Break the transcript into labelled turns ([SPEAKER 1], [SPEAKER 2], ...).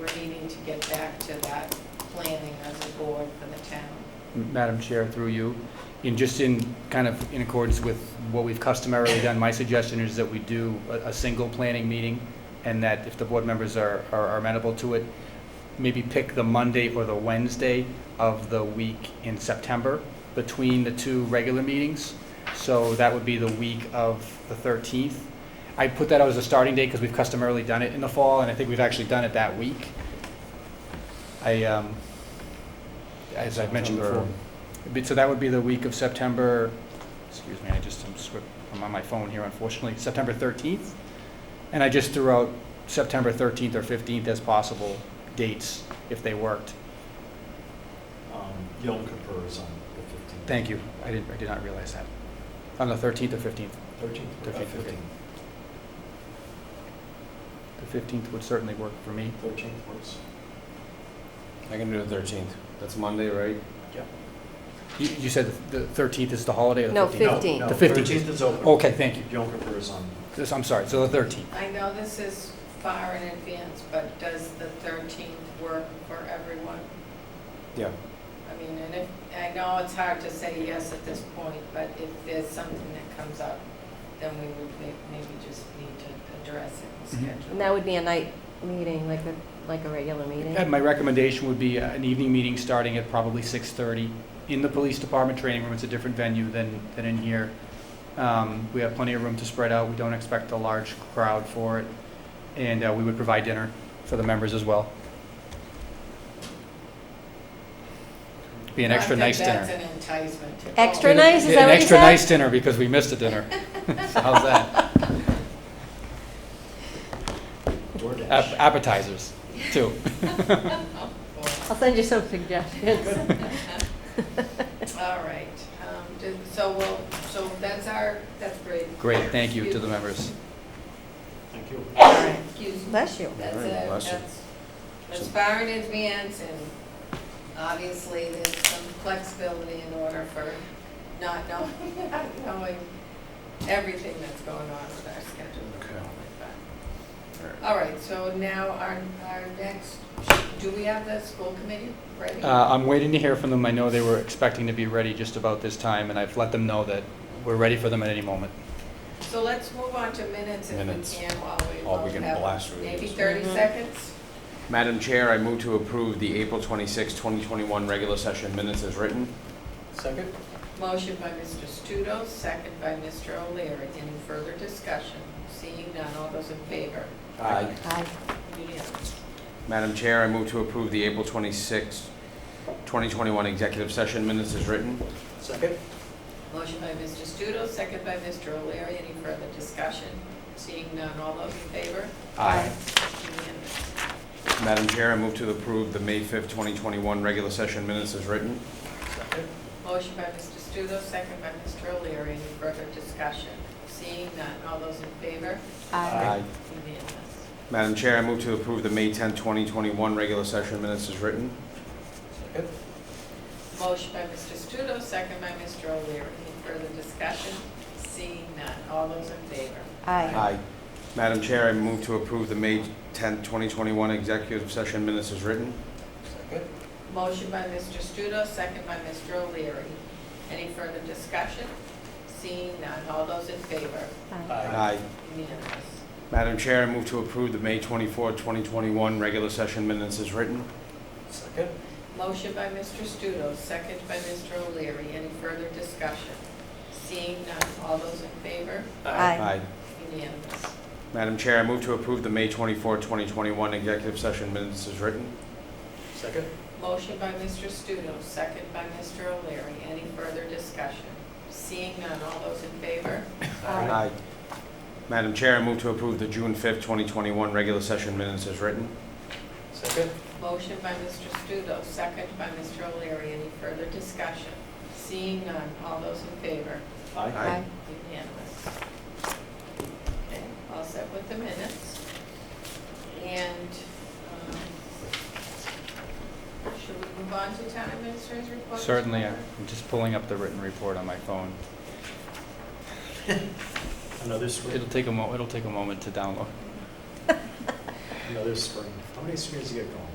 [SPEAKER 1] back to that planning as a board for the town.
[SPEAKER 2] Madam Chair, through you, in just in, kind of in accordance with what we've customarily done, my suggestion is that we do a, a single planning meeting, and that if the board members are, are are amenable to it, maybe pick the Monday or the Wednesday of the week in September between the two regular meetings. So that would be the week of the 13th. I put that out as a starting date because we've customarily done it in the fall, and I think we've actually done it that week. I, um, as I've mentioned before, but- So that would be the week of September, excuse me, I just, I'm swi- I'm on my phone here unfortunately, September 13th. And I just threw out September 13th or 15th as possible dates, if they worked.
[SPEAKER 3] Um, Yom Kippur is on the fifteenth.
[SPEAKER 2] Thank you, I didn't, I did not realize that. On the 13th or 15th?
[SPEAKER 3] Thirteenth, Uh,
[SPEAKER 2] Thirteenth,
[SPEAKER 3] fifteenth.
[SPEAKER 2] The 15th would certainly work for me.
[SPEAKER 3] Thirteenth works.
[SPEAKER 4] I can do the thirteenth. That's Monday, right?
[SPEAKER 2] You, you said the 13th is the holiday or the
[SPEAKER 5] No,
[SPEAKER 2] 15th?
[SPEAKER 3] No,
[SPEAKER 5] 15th.
[SPEAKER 3] no,
[SPEAKER 2] The 15th.
[SPEAKER 3] Thirteenth is open.
[SPEAKER 2] Okay, thank you.
[SPEAKER 3] Yom Kippur is on,
[SPEAKER 2] This- I'm sorry, so the 13th.
[SPEAKER 1] I know this is far in advance, but does the 13th work for everyone?
[SPEAKER 4] Yeah.
[SPEAKER 1] I mean, and if, I know it's hard to say yes at this point, but if there's something that comes up, then we would may- maybe just need to address it and
[SPEAKER 2] Mhm.
[SPEAKER 1] schedule.
[SPEAKER 5] And that would be a night meeting, like a, like a regular meeting?
[SPEAKER 2] And Uh, my recommendation would be uh, an evening meeting starting at probably 6:30 in the police department training room. It's a different venue than, than in here. Um, We have plenty of room to spread out. We don't expect a large crowd for it. And uh, we would provide dinner for the members as well. Be an
[SPEAKER 1] I
[SPEAKER 2] extra
[SPEAKER 1] think
[SPEAKER 2] nice dinner.
[SPEAKER 1] That's an enticement to. go.
[SPEAKER 5] Extra nice, is
[SPEAKER 2] Yeah,
[SPEAKER 5] that what
[SPEAKER 2] An
[SPEAKER 5] you
[SPEAKER 2] extra
[SPEAKER 5] said?
[SPEAKER 2] nice dinner because we missed a dinner. So How's that? Ap-
[SPEAKER 3] DoorDash.
[SPEAKER 2] Appetizers, too.
[SPEAKER 5] I'll send you some suggestions.
[SPEAKER 1] All right, um, do- so we'll, so that's our, that's great.
[SPEAKER 2] Great, thank you to the members.
[SPEAKER 3] Thank you.
[SPEAKER 1] All right, Excuse me.
[SPEAKER 5] Bless you.
[SPEAKER 1] That's
[SPEAKER 4] Alright,
[SPEAKER 1] it,
[SPEAKER 4] bless you.
[SPEAKER 1] that's, that's far in advance, and obviously, there's some flexibility in order for not knowing, not knowing everything that's going on with our schedule. and
[SPEAKER 4] Okay.
[SPEAKER 1] all like that. All right, so now our, our next, do we have the school committee ready?
[SPEAKER 2] Uh, I'm waiting to hear from them. I know they were expecting to be ready just about this time, and I've let them know that we're ready for them at any moment.
[SPEAKER 1] So let's move on to minutes if
[SPEAKER 4] Minutes.
[SPEAKER 1] we can while we
[SPEAKER 4] Oh, we
[SPEAKER 1] both
[SPEAKER 4] can
[SPEAKER 1] have
[SPEAKER 4] blast through
[SPEAKER 1] Maybe
[SPEAKER 4] these.
[SPEAKER 1] thirty
[SPEAKER 5] Mhm.
[SPEAKER 1] seconds?
[SPEAKER 4] Madam Chair, I move to approve the April 26, 2021 regular session minutes as written.
[SPEAKER 3] Second?
[SPEAKER 1] Motion by Mr. Studo, second by Mr. O'Leary. Any further discussion? Seeing none, all those in favor?
[SPEAKER 4] Aye.
[SPEAKER 5] Aye.
[SPEAKER 1] Unanimous.
[SPEAKER 4] Uh, Madam Chair, I move to approve the April 26, 2021 executive session minutes as written.
[SPEAKER 3] Second?
[SPEAKER 1] Motion by Mr. Studo, second by Mr. O'Leary. Any further discussion? Seeing none, all those in favor?
[SPEAKER 4] Aye.
[SPEAKER 1] Unanimous.
[SPEAKER 4] Madam Chair, I move to approve the May 5, 2021 regular session minutes as written.
[SPEAKER 3] Second.
[SPEAKER 1] Motion by Mr. Studo, second by Mr. O'Leary. Any further discussion? Seeing none, all those in favor?
[SPEAKER 3] Aye.
[SPEAKER 1] Unanimous.
[SPEAKER 4] Madam Chair, I move to approve the May 10, 2021 regular session minutes as written.
[SPEAKER 3] Second?
[SPEAKER 1] Motion by Mr. Studo, second by Mr. O'Leary. Any further discussion? Seeing none, all those in favor?
[SPEAKER 5] Aye.
[SPEAKER 4] Madam Chair, I move to approve the May 10, 2021 executive session minutes as written.
[SPEAKER 3] Second?
[SPEAKER 1] Motion by Mr. Studo, second by Mr. O'Leary. Any further discussion? Seeing none, all those in favor?
[SPEAKER 5] Aye.
[SPEAKER 3] Aye.
[SPEAKER 1] Unanimous.
[SPEAKER 4] Madam Chair, I move to approve the May 24, 2021 regular session minutes as written.
[SPEAKER 3] Second?
[SPEAKER 1] Motion by Mr. Studo, second by Mr. O'Leary. Any further discussion? Seeing none, all those in favor?
[SPEAKER 5] Aye.
[SPEAKER 1] Unanimous.
[SPEAKER 4] Madam Chair, I move to approve the May 24, 2021 executive session minutes as written.
[SPEAKER 3] Second?
[SPEAKER 1] Motion by Mr. Studo, second by Mr. O'Leary. Any further discussion? Seeing none, all those in favor?
[SPEAKER 4] Madam Chair, I move to approve the June 5, 2021 regular session minutes as written.
[SPEAKER 3] Second?
[SPEAKER 1] Motion by Mr. Studo, second by Mr. O'Leary. Any further discussion? Seeing none, all those in favor?
[SPEAKER 4] Aye.
[SPEAKER 1] Unanimous. Okay, all set with the minutes. And um, should we move on to town administrator's report? Mr.
[SPEAKER 2] Certainly, I'm
[SPEAKER 1] Walker?
[SPEAKER 2] just pulling up the written report on my phone.
[SPEAKER 3] Another spring,
[SPEAKER 2] It'll take a mo, it'll take a moment to download.
[SPEAKER 3] another spring. How many springs you get going?